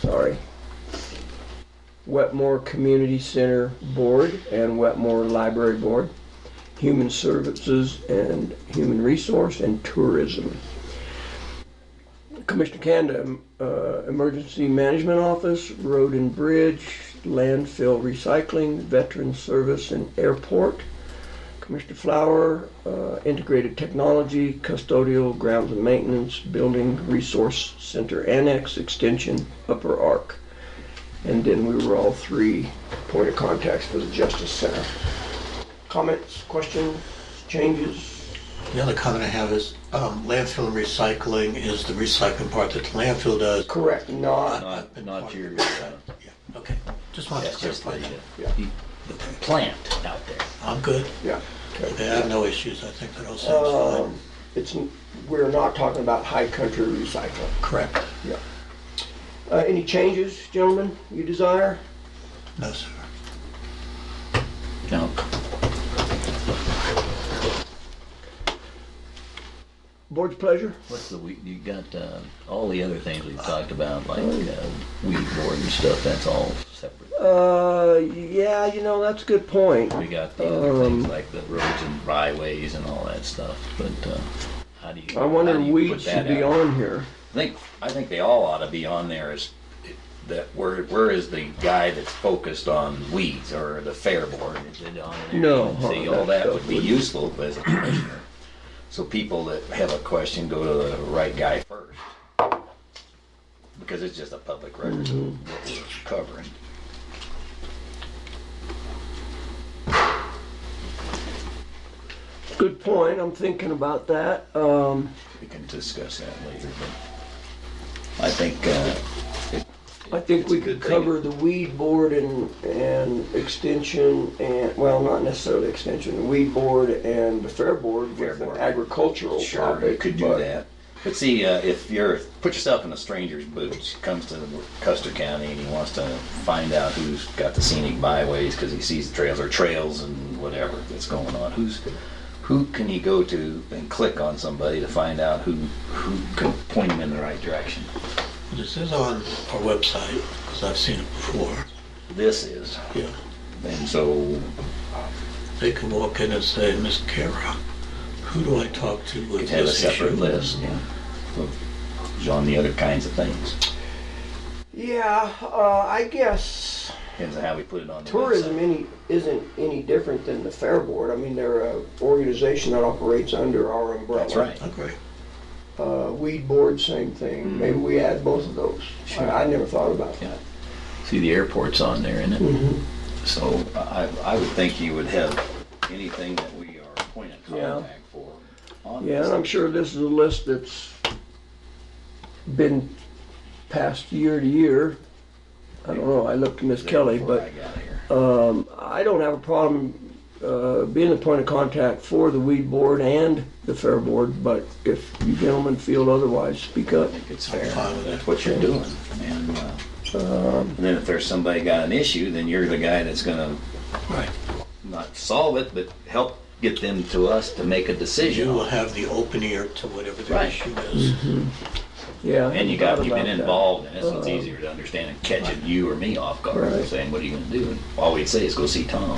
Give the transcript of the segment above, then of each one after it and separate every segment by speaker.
Speaker 1: sorry. Wetmore Community Center Board and Wetmore Library Board, Human Services and Human Resource, and Tourism. Commissioner Kanda, uh, Emergency Management Office, Road and Bridge, Landfill Recycling, Veteran Service, and Airport. Commissioner Flower, uh, Integrated Technology, Custodial, Grounds and Maintenance, Building Resource Center Annex, Extension, Upper Arc. And then we were all three point of contacts for the Justice Center. Comments, questions, changes?
Speaker 2: The other comment I have is um, landfill and recycling is the recycling part that the landfill does.
Speaker 1: Correct, not,
Speaker 3: Not, not your, uh,
Speaker 2: Yeah, Okay, just wanted to
Speaker 3: that's just
Speaker 2: clarify
Speaker 3: the,
Speaker 2: that.
Speaker 1: Yeah.
Speaker 3: the the plant out there.
Speaker 2: I'm good.
Speaker 1: yeah.
Speaker 2: I have no issues. I think that all sounds
Speaker 1: Um, It's, n- we're not talking about high country recycling.
Speaker 2: fine. Correct.
Speaker 1: Yeah. Uh, Any changes, gentlemen, you desire?
Speaker 2: No, sir.
Speaker 3: No,
Speaker 1: Board's pleasure?
Speaker 3: what's the, we- you got, uh, all the other things we've talked about, like, uh, weed board and stuff, that's all separate.
Speaker 1: Uh, yeah, you know, that's a good point.
Speaker 3: We got the other
Speaker 1: Um,
Speaker 3: things like the roads and byways and all that stuff, but, uh, how do you?
Speaker 1: I wonder
Speaker 3: how do
Speaker 1: if
Speaker 3: you
Speaker 1: weed
Speaker 3: put that
Speaker 1: should be
Speaker 3: out?
Speaker 1: on here.
Speaker 3: I think, I think they all ought to be on there is that where, where is the guy that's focused on weeds or the fair board? Is it on there?
Speaker 1: No,
Speaker 3: See,
Speaker 1: huh,
Speaker 3: all
Speaker 1: that
Speaker 3: that would
Speaker 1: stuff
Speaker 3: be
Speaker 1: wouldn't.
Speaker 3: useful as a commissioner. So people that have a question, go to the right guy first. Because it's just a public record of what we're covering.
Speaker 1: Good point, I'm thinking about that. Um,
Speaker 3: We can discuss that later, but I think, uh. it-
Speaker 1: I think
Speaker 3: it's a
Speaker 1: we
Speaker 3: good
Speaker 1: could
Speaker 3: thing.
Speaker 1: cover the weed board and, and extension and, well, not necessarily extension, the weed board and the fair board
Speaker 3: Fair
Speaker 1: with an
Speaker 3: board.
Speaker 1: agricultural
Speaker 3: Sure,
Speaker 1: topic.
Speaker 3: you could do
Speaker 1: but-
Speaker 3: that. But see, uh, if you're, put yourself in a stranger's boots, comes to Custer County and he wants to find out who's got the scenic byways because he sees the trails or trails and whatever that's going on. Who's, who can he go to and click on somebody to find out who, who can point him in the right direction?
Speaker 2: This is on our website because I've seen it before.
Speaker 3: This is.
Speaker 2: Yeah.
Speaker 3: And so
Speaker 2: They can walk in and say, Miss Kara, who do I talk to
Speaker 3: we
Speaker 2: with
Speaker 3: have a
Speaker 2: this
Speaker 3: separate
Speaker 2: issue?
Speaker 3: list, yeah, of on the other kinds of things.
Speaker 1: Yeah, uh, I guess
Speaker 3: Depends on how we put it on the
Speaker 1: tourism
Speaker 3: website.
Speaker 1: any, isn't any different than the fair board. I mean, they're a organization that operates under our umbrella.
Speaker 3: That's right.
Speaker 2: Okay.
Speaker 1: Uh, weed board, same thing. Maybe we add both of those.
Speaker 3: Mm-hmm. Sure.
Speaker 1: I, I never thought about
Speaker 3: Yeah.
Speaker 1: that.
Speaker 3: See, the airport's on there, isn't it?
Speaker 1: Mhm.
Speaker 3: So I, I would think you would have anything that we are point of
Speaker 1: Yeah.
Speaker 3: contact for on
Speaker 1: Yeah, and I'm
Speaker 3: this.
Speaker 1: sure this is a list that's been passed year to year. I don't know, I looked to Miss Kelly,
Speaker 3: Before I
Speaker 1: but,
Speaker 3: got here.
Speaker 1: um, I don't have a problem, uh, being the point of contact for the weed board and the fair board, but if you gentlemen feel otherwise, speak up.
Speaker 3: I think it's fair.
Speaker 2: fine with
Speaker 3: That's
Speaker 2: it.
Speaker 3: what you're doing. And, uh,
Speaker 1: Um,
Speaker 3: and then if there's somebody got an issue, then you're the guy that's gonna
Speaker 2: Right.
Speaker 3: not solve it, but help get them to us to make a
Speaker 2: You
Speaker 3: decision
Speaker 2: will
Speaker 3: on it.
Speaker 2: have the open ear to whatever the
Speaker 3: Right.
Speaker 2: issue is.
Speaker 1: Yeah. I
Speaker 3: And you
Speaker 1: forgot
Speaker 3: got, you've
Speaker 1: about
Speaker 3: been
Speaker 1: that. Uh-huh.
Speaker 3: involved in it, so it's easier to understand and catch it, you or me off guard,
Speaker 1: Right.
Speaker 3: saying, what are you gonna do? And All we'd say is go see Tom.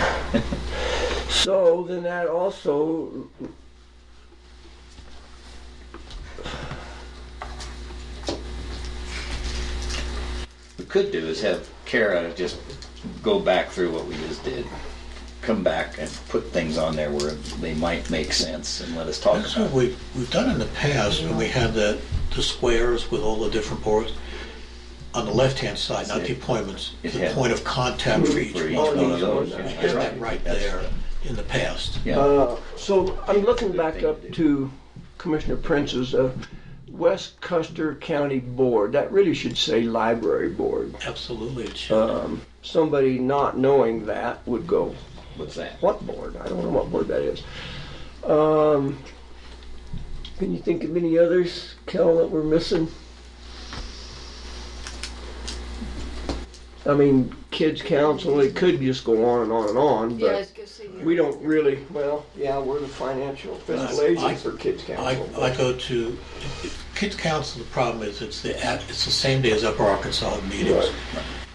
Speaker 1: So then that also.
Speaker 3: we could do is have Kara just go back through what we just did, come back and put things on there where they might make sense and let us talk
Speaker 2: That's
Speaker 3: about
Speaker 2: what we've, we've done in the past, when we had the, the squares with all the different boards. On the left-hand side, not the appointments,
Speaker 3: It
Speaker 2: the
Speaker 3: had-
Speaker 2: point of contact for
Speaker 3: it.
Speaker 2: each
Speaker 3: For
Speaker 2: one.
Speaker 3: each
Speaker 1: Oh,
Speaker 3: one of
Speaker 1: each one.
Speaker 3: those. yeah,
Speaker 2: We
Speaker 3: that's
Speaker 2: had that right
Speaker 3: That's-
Speaker 2: there in the past.
Speaker 3: Yeah,
Speaker 1: Uh, so I'm looking back up to Commissioner Prince's uh, West Custer County Board. That really should say Library Board.
Speaker 2: Absolutely, it should.
Speaker 3: Uh,
Speaker 1: Um, somebody not knowing that would go,
Speaker 3: what's that?
Speaker 1: "What board? I don't know what board that is." Um, can you think of any others, Kel, that we're missing? I mean, Kids Council. It could just go on and on and on, but.
Speaker 4: Yeah, it's good to see you.
Speaker 1: We don't really, well, yeah, we're the financial fiscal
Speaker 2: I-
Speaker 1: agent for Kids
Speaker 2: I,
Speaker 1: Council.
Speaker 2: I
Speaker 1: but-
Speaker 2: go to kids council, the problem is it's the, at- it's the same day as Upper Arkansas meetings.
Speaker 1: Right.